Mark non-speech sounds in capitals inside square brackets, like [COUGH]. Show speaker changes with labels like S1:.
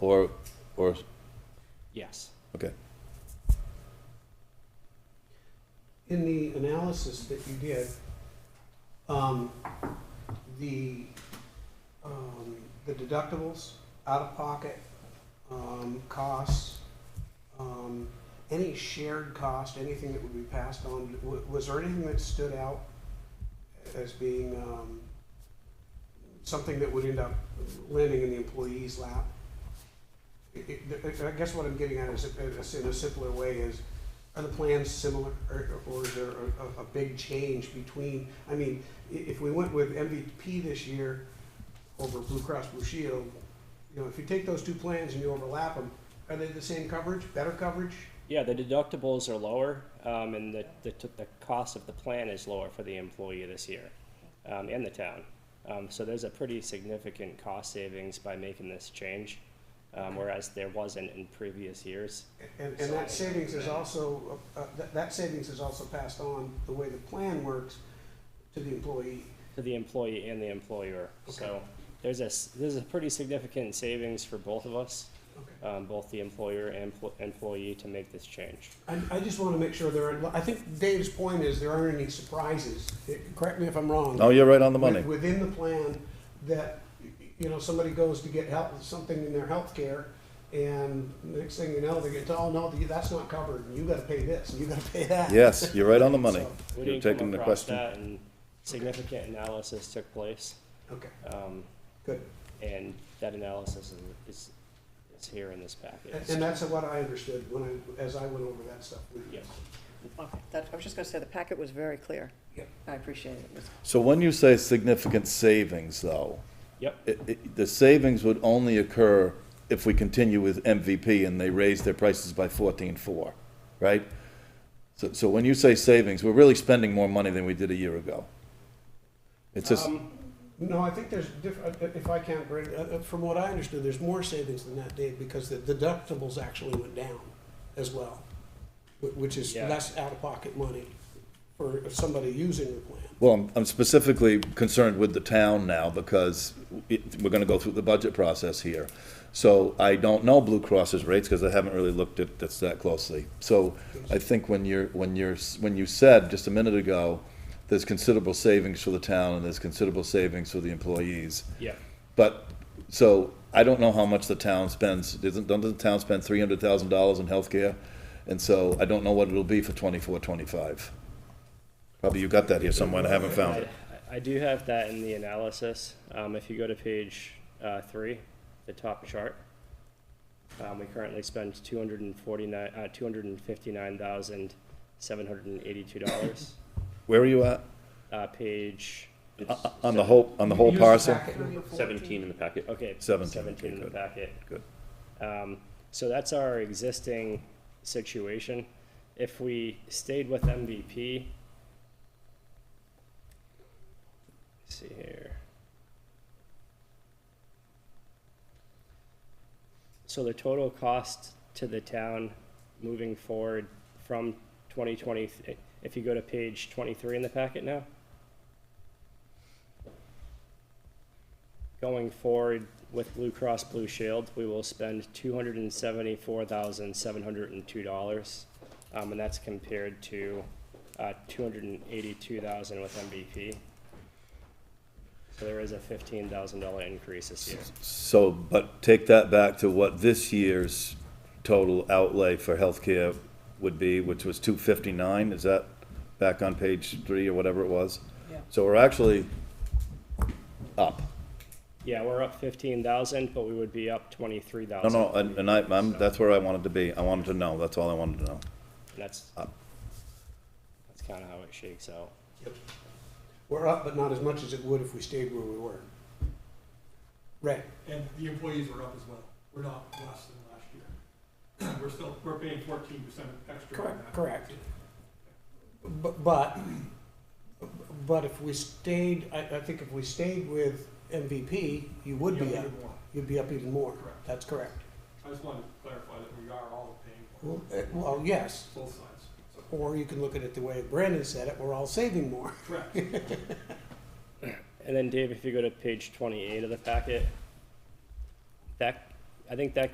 S1: Or, or,
S2: Yes.
S1: okay.
S3: In the analysis that you did, um, the, um, the deductibles, out-of-pocket, um, costs, um, any shared cost, anything that would be passed on, wa- was there anything that stood out as being, um, something that would end up landing in the employee's lap? It- it- I guess what I'm getting at is, in a simpler way, is are the plans similar, or, or is there a, a, a big change between, I mean, i- if we went with MVP this year over Blue Cross Blue Shield, you know, if you take those two plans and you overlap them, are they the same coverage, better coverage?
S2: Yeah, the deductibles are lower, um, and the, the, t- the cost of the plan is lower for the employee this year, um, and the town. Um, so there's a pretty significant cost savings by making this change, um, whereas there wasn't in previous years.
S3: And, and that savings is also, uh, that, that savings is also passed on, the way the plan works, to the employee.
S2: to the employee and the employer. So there's a, s- there's a pretty significant savings for both of us,
S3: Okay.
S2: um, both the employer and pl- employee to make this change.
S3: I, I just wanna make sure there aren't, I think Dave's point is there aren't any surprises, correct me if I'm wrong.
S1: No, you're right on the
S3: with-
S1: money.
S3: Within the plan that, you know, somebody goes to get help, something in their health care, and next thing you know, they get, oh, no, that's not covered, and you gotta pay this, and you gotta pay that.
S1: Yes, you're right on the money.
S2: We
S1: You're
S2: didn't come
S1: taking the
S2: across
S1: question.
S2: that, and significant analysis took place,
S3: Okay,
S2: um,
S3: good.
S2: and that analysis is, is, is here in this
S3: And
S2: package.
S3: and that's what I understood when I, as I went over that stuff with you.
S2: Yes.
S4: Okay, that, I was just gonna say, the packet was very clear.
S3: Yep.
S4: I appreciate it. It was-
S1: So when you say significant savings, though,
S2: Yep,
S1: it, it, the savings would only occur if we continue with MVP and they raise their prices by fourteen-four, right? So, so when you say savings, we're really spending more money than we did a year ago. It's just,
S3: No, I think there's different, if I can't, Brad, uh, uh, from what I understood, there's more savings than that, Dave, because the deductibles actually went down as well, wh- which is
S2: Yeah.
S3: less out-of-pocket money for somebody using the plan.
S1: well, I'm- I'm specifically concerned with the town now because it, we're gonna go through the budget process here. So I don't know Blue Cross's rates because I haven't really looked at this that closely. So I think when you're, when you're, when you said just a minute ago, there's considerable savings for the town and there's considerable savings for the employees.
S2: yep.
S1: But, so, I don't know how much the town spends, doesn't, doesn't the town spend three hundred thousand dollars in healthcare? And so, I don't know what it'll be for twenty-four, twenty-five. Probably you got that here somewhere, and I haven't found
S2: I,
S1: it.
S2: I do have that in the analysis. Um, if you go to page uh, three, the top chart, um, we currently spend two hundred and forty-nine, uh, two hundred and fifty-nine thousand, seven hundred and eighty-two dollars.
S1: Where are you at?
S2: Uh, page,
S1: Uh, On the whole, on the whole parcel?
S5: Seventeen in the packet.
S2: okay.
S1: Seventeen,
S2: Seventeen in
S1: okay,
S2: the
S1: good,
S2: packet.
S1: good.
S2: Um, so that's our existing situation. If we stayed with MVP, let's see here. So the total cost to the town moving forward from 2020, if you go to page 23 in the packet now. Going forward with Blue Cross Blue Shield, we will spend two hundred and seventy-four thousand, seven hundred and two dollars. Um, and that's compared to, uh, two hundred and eighty-two thousand with MVP. So there is a fifteen thousand dollar increase this year.
S1: So, but take that back to what this year's total outlay for healthcare would be, which was two fifty-nine, is that back on page three or whatever it was?
S4: Yeah.
S1: So we're actually up.
S2: Yeah, we're up fifteen thousand, but we would be up twenty-three
S1: No,
S2: thousand.
S1: no, and and I, I'm, that's where I wanted to be. I wanted to know, that's all I wanted to know.
S2: That's,
S1: Up.
S2: that's kinda how it shakes out.
S3: We're up, but not as much as it would if we stayed where we were. Right,
S6: And the employees were up as well. We're not less than last year. [CLEARS THROAT] We're still, we're paying fourteen percent extra on
S3: correct,
S6: that.
S3: correct. But, but, but if we stayed, I, I think if we stayed with MVP, you would
S6: Yeah,
S3: be
S6: we
S3: up,
S6: did more.
S3: you'd be up even more.
S6: Correct.
S3: That's correct.
S6: I just wanted to clarify that we are all paying more,
S3: Well, uh, well, yes,
S6: both sides. So,
S3: or you can look at it the way Brandon said it, we're all saving more.
S6: Correct.
S2: And then Dave, if you go to page twenty-eight of the packet, that, I think that